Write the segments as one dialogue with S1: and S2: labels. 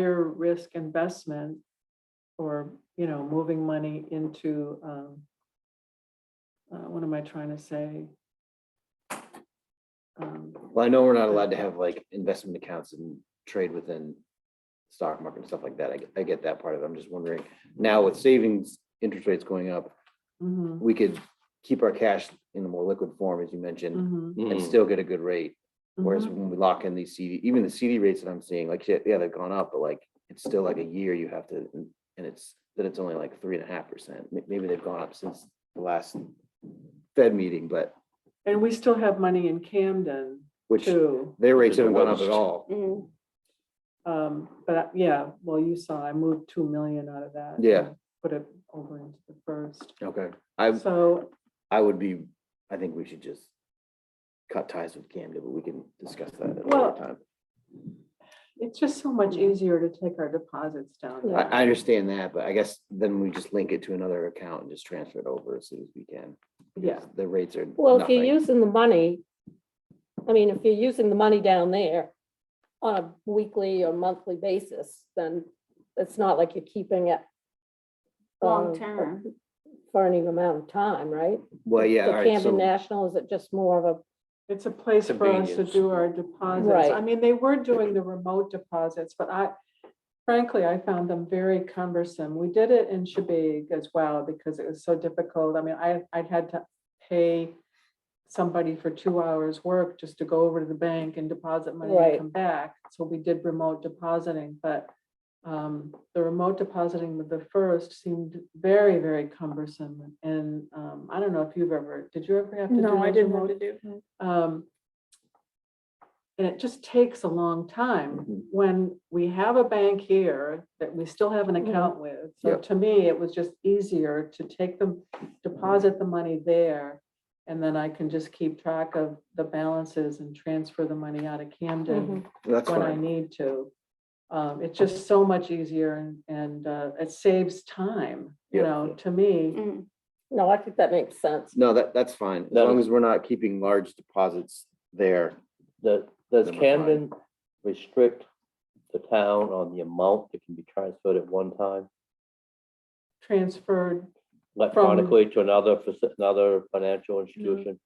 S1: higher risk investment or, you know, moving money into, um, uh, what am I trying to say? Um,
S2: Well, I know we're not allowed to have like investment accounts and trade within stock market and stuff like that. I, get- I get that part of it. I'm just wondering, now with savings, interest rates going up,
S1: mhm,
S2: we could keep our cash in a more liquid form, as you mentioned,
S1: mhm,
S2: and
S3: Mm,
S2: still get a good rate. Whereas
S1: mhm.
S2: when we lock in these CD, even the CD rates that I'm seeing, like, yeah, yeah, they've gone up, but like, it's still like a year you have to, and it's, then it's only like three and a half percent. Maybe they've gone up since the last Fed meeting, but
S1: And we still have money in Camden
S2: which
S1: too.
S2: their rates haven't gone up
S3: Which-
S2: at all.
S1: Um, but I- yeah, well, you saw I moved two million out of that.
S2: Yeah.
S1: and Put it over into the first.
S2: Okay. I,
S1: So,
S2: I would be, I think we should just cut ties with Camden, but we can discuss that at
S1: Well,
S2: another time.
S1: it's just so much easier to take our deposits down.
S2: I,
S1: there.
S2: I understand that, but I guess then we just link it to another account and just transfer it over as soon as we can.
S1: Yeah,
S2: The rates are
S4: Well, if you're
S2: nothing.
S4: using the money, I mean, if you're using the money down there on a weekly or monthly basis, then it's not like you're keeping it.
S5: Long
S4: um,
S5: term.
S4: For any amount of time, right?
S2: Well, yeah, all
S4: The
S2: right,
S4: Camden
S2: so,
S4: National, is it just more of a,
S1: it's a place for us to
S3: Convenience.
S1: do our deposits.
S4: Right.
S1: I mean, they were doing the remote deposits, but I frankly, I found them very cumbersome. We did it in Shabig as well because it was so difficult. I mean, I, I had to pay somebody for two hours work just to go over to the bank and deposit money and
S4: Right.
S1: come back. So we did remote depositing, but um, the remote depositing with the first seemed very, very cumbersome. And um, I don't know if you've ever, did you ever have to do?
S5: No, I
S1: those
S5: didn't
S1: remote-
S5: have to do.
S1: um, And it just takes a long time
S2: Mhm.
S1: when we have a bank here that we still have an
S4: Mhm.
S1: account with. So
S2: Yep.
S1: to me, it was just easier to take them, deposit the money there. And then I can just keep track of the balances and transfer the money out of
S4: Mm-hmm.
S1: Camden
S2: that's
S1: when I
S2: fine.
S1: need to. Um, It's just so much easier and, and uh, it saves time, you
S2: Yep.
S1: know, to me.
S5: Mm.
S4: no, I think that makes sense.
S2: No, that, that's fine. As
S3: That
S2: long
S3: is-
S2: as we're not keeping large deposits there.
S3: Does, does
S2: Number five.
S3: Camden restrict the town on the amount that can be transferred at one time
S1: Transferred,
S3: electronically to another, faci- another
S4: Mm.
S3: financial institution?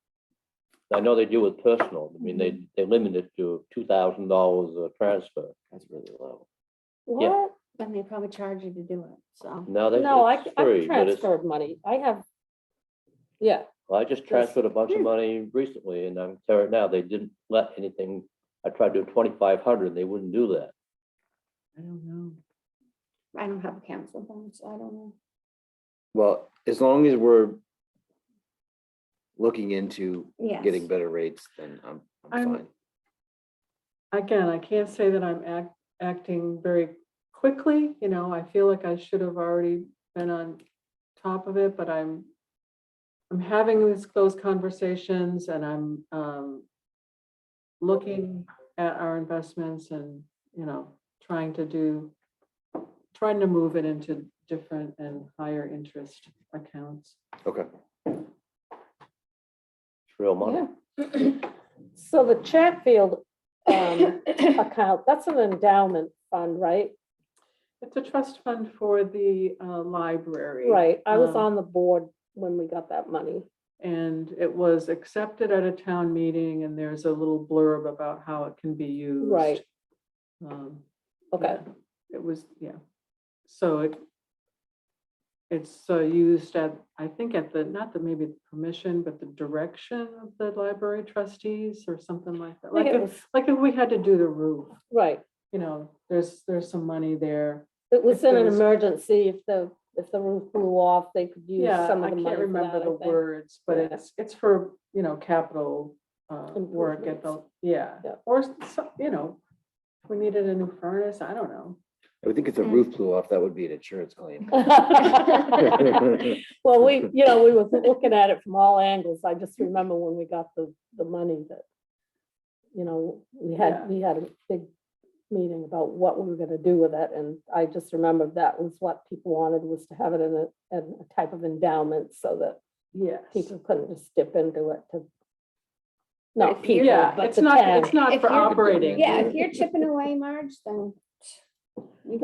S3: I know they do with personal, I mean, they,
S4: Mm-hmm.
S3: they limit it to two thousand dollars a transfer.
S2: That's really low.
S3: Yeah.
S4: What?
S5: Then they probably charge you to do it, so.
S3: Now they.
S4: No, I,
S3: it's
S4: I've
S3: free, but it's-
S4: transferred money. I have. Yeah,
S3: Well, I just transferred a bunch
S4: Hmm.
S3: of money recently and I'm tearing now. They didn't let anything, I tried to do twenty-five hundred, they wouldn't do that.
S1: I don't know.
S5: I don't have a council phone, so I don't know.
S2: Well, as long as we're looking into
S5: Yes.
S2: getting better rates, then I'm, I'm
S1: I'm-
S2: fine.
S1: again, I can't say that I'm act, acting very quickly, you know, I feel like I should have already been on top of it, but I'm I'm having this, those conversations and I'm, um, looking at our investments and, you know, trying to do, trying to move it into different and higher interest accounts.
S2: Okay.
S3: It's real
S4: yeah.
S3: money.
S4: So the Chatfield um, account, that's an endowment fund, right?
S1: It's a trust fund for the, uh, library.
S4: Right, I was
S1: Um,
S4: on the board when we got that money.
S1: And it was accepted at a town meeting and there's a little blurb about how it can be used.
S4: Right.
S1: Um,
S4: Okay,
S1: yeah, It was, yeah. So it, it's uh, used at, I think at the, not the maybe the permission, but the direction of the library trustees or something like that.
S4: I
S1: Like
S4: think it
S1: if,
S4: was,
S1: like if we had to do the roof,
S4: right,
S1: you know, there's, there's some money there.
S4: it was
S1: if there
S4: in an
S1: was-
S4: emergency, if the, if the roof blew off, they could use
S1: Yeah,
S4: some
S1: I
S4: of the
S1: can't
S4: money for
S1: remember the
S4: that,
S1: words, but
S4: Yeah.
S1: it's, it's for, you know, capital uh, work at the,
S4: Improvements.
S1: yeah.
S4: Yeah.
S1: Or, s- so- you know, if we needed a new furnace, I don't know.
S2: I would think if the
S5: Mm.
S2: roof blew off, that would be an insurance claim.
S4: I think. Well, we, you know, we was looking at it from all angles, I just remember when we got the, the money that, you know, we
S1: Yeah.
S4: had, we had a big meeting about what we were gonna do with it, and I just remembered that was what people wanted, was to have it in a, in a type of endowment, so that
S1: Yes.
S4: people couldn't just dip into it to.
S5: if
S4: Not
S5: you-
S4: people,
S1: Yeah,
S4: but
S1: it's
S4: the
S1: not, it's
S4: town.
S1: not
S5: If
S1: for
S5: you're-
S1: operating.
S5: Yeah, if you're chipping away, Marge, then You